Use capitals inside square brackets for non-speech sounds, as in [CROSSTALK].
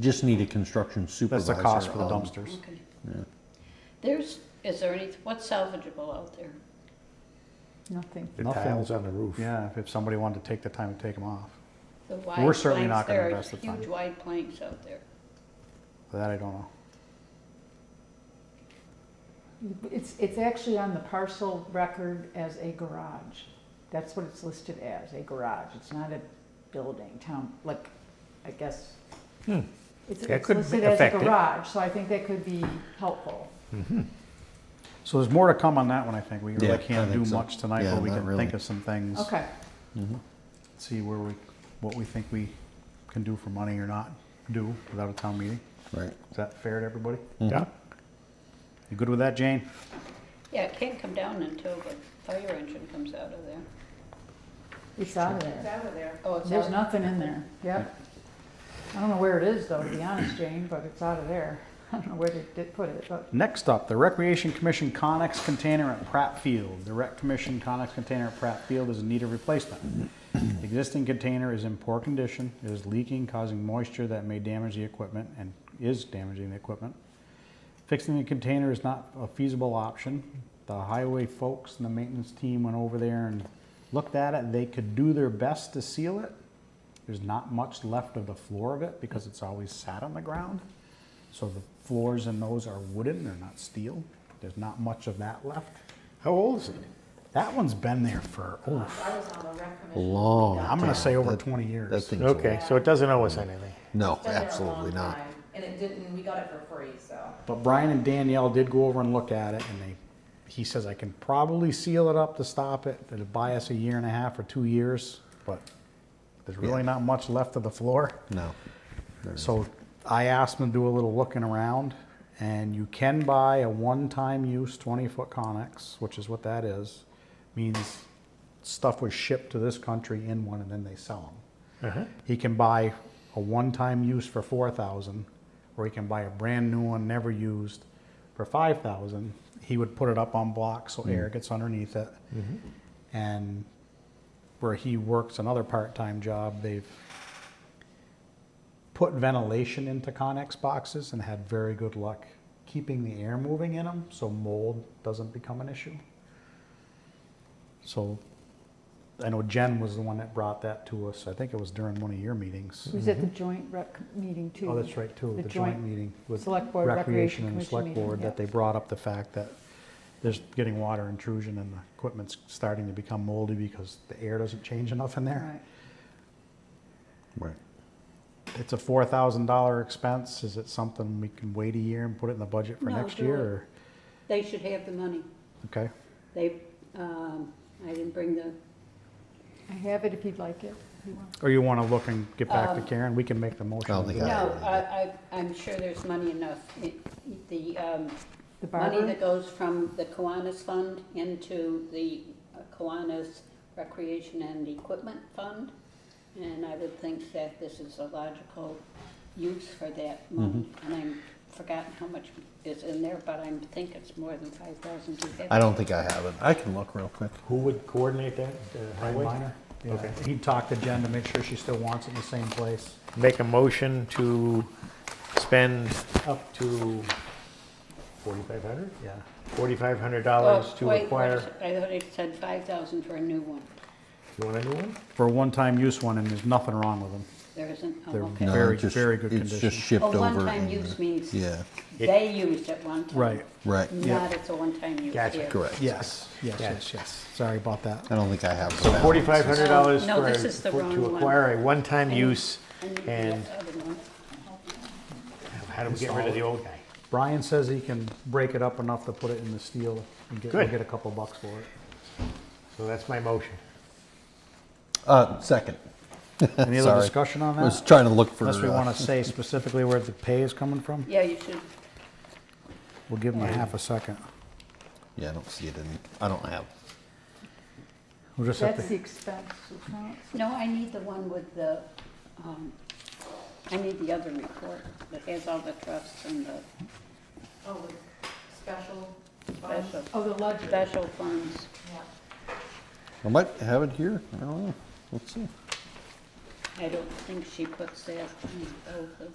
just need a construction supervisor. That's the cost for the on- dumpsters. Okay. There's, is there any, what's salvageable out there? Nothing. The Nothing. tiles on the roof. Yeah, if- if somebody wanted to take the time to take them off. The wide We're certainly not planks, gonna there are invest the time. Huge wide planks out there. That I don't know. It's, it's actually on the parcel record as a garage. That's what it's listed as, a garage. It's not a building, town, like, I guess. Hmm. It's That it's could listed as a affect it. garage, so I think that could be helpful. So there's more to come on that one, I think. We Yeah, really I can't do think so. much tonight, Yeah, but we not can really. think of some things. Okay, Mm-hmm. See where we, what we think we can do for money or not do without a town meeting. Right. Is that fair to everybody? Yeah. You good with that, Jane? Yeah, it can't come down until the fire engine comes out of there. it's out of there. out of there. Oh, it's There's out. nothing in there, yep. I don't know where it is though, to be honest, Jane, but it's out of there. [LAUGHS] I don't know where they did put it, but Next up, the Recreation Commission Connex container at Pratt Field. The Rec Commission Connex container at Pratt Field is in need of replacement. The existing container is in poor condition, it is leaking, causing moisture that may damage the equipment and is damaging the equipment. Fixing the container is not a feasible option. The highway folks and the maintenance team went over there and looked at it. They could do their best to seal it. There's not much left of the floor of it because it's always sat on the ground. So the floors in those are wooden, they're not steel. There's not much of that left. How old is it? That one's been there for, oh, I was on the rec commission. Long. I'm gonna time. say over That- 20 years. That thing's old. Okay, so it doesn't owe us anything. No, Been there a absolutely long not. time, And it didn't, we got it for free, so. but Brian and Danielle did go over and look at it and they, he says, I can probably seal it up to stop it. It'll buy us a year and a half or two years, but there's really not much left of the floor. No. So I asked them to do a little looking around, and you can buy a one-time use 20-foot Conex, which is what that is. Means stuff was shipped to this country in one, and then they sell them. He can buy a one-time use for 4,000, or he can buy a brand-new one, never used, for 5,000. He would put it up on blocks so air gets underneath it. And where he works another part-time job, they've put ventilation into Connex boxes and had very good luck keeping the air moving in them so mold doesn't become an issue. So I know Jen was the one that brought that to us. I think it was during one of your meetings. it was at the joint rec meeting too. Mm-hmm. Oh, that's right, too, the joint meeting with Select Board Recreation Recreation and the Commission Select meeting, Board, yeah. that they brought up the fact that there's getting water intrusion and the equipment's starting to become moldy because the air doesn't change enough in there. Right. Right. It's a four thousand dollar expense. Is it something we can wait a year and put it in the budget for No, next do year? it. Or, They should have the money. okay. They, um, I didn't bring the, I have it if you'd like it. if you want. Or you want to look and get back to Karen? We can make the motion. I don't and do think that. no, I, I, I'm sure there's money enough. It- The, um, The money barber, that goes from the Kiwanis Fund into the uh, Kiwanis Recreation and Equipment Fund. And I would think that this is a logical use for that Mm-hmm. money. And I've forgotten how much is in there, but I think it's more than five thousand two fifty. I don't think I have it. I can look real quick. Who would coordinate that? The Brian highway? Minor? Yeah. Okay. He talked to Jen to make sure she still wants it in the same place. Make a motion to spend up to forty-five hundred? Yeah. Forty-five hundred dollars to Oh, Wait, what acquire, is it? I thought it said five thousand for a new one. you want a new one? For a one-time use one, and there's nothing wrong with them. There isn't, oh, They're okay. No, Very- it just- very good It's condition. just shipped Oh, over. one-time and, uh, use means Yeah, they used it one time. Right. right. Not it's a one-time use. Gotcha. here. Correct. Yes. Yes. Yeah. Yes. Yes. Sorry about that. I don't think I have. So the forty-five balances. hundred dollars Oh, No, for, a- this is the for- wrong to one. acquire a one-time I need- use, I need the and other one. how do we get rid of the old guy? Brian says he can break it up enough to put it in the steel and get, we'll Good. get a couple bucks [LAUGHS] for it. So that's my motion. Uh, second. Any other Sorry. discussion on I was that? trying to look for. Unless we uh, [LAUGHS] want to say specifically where the pay is coming from, Yeah, you should, we'll give him a half a second. Yeah, I don't see it in, I don't have. We'll just have that's the to, expense account. no, I need the one with the, um, I need the other report that has all the trusts and the Oh, with special funds, special, Oh, the ledger. special funds. yeah. I might have it here. I don't know. Let's see. I don't think she puts that in both of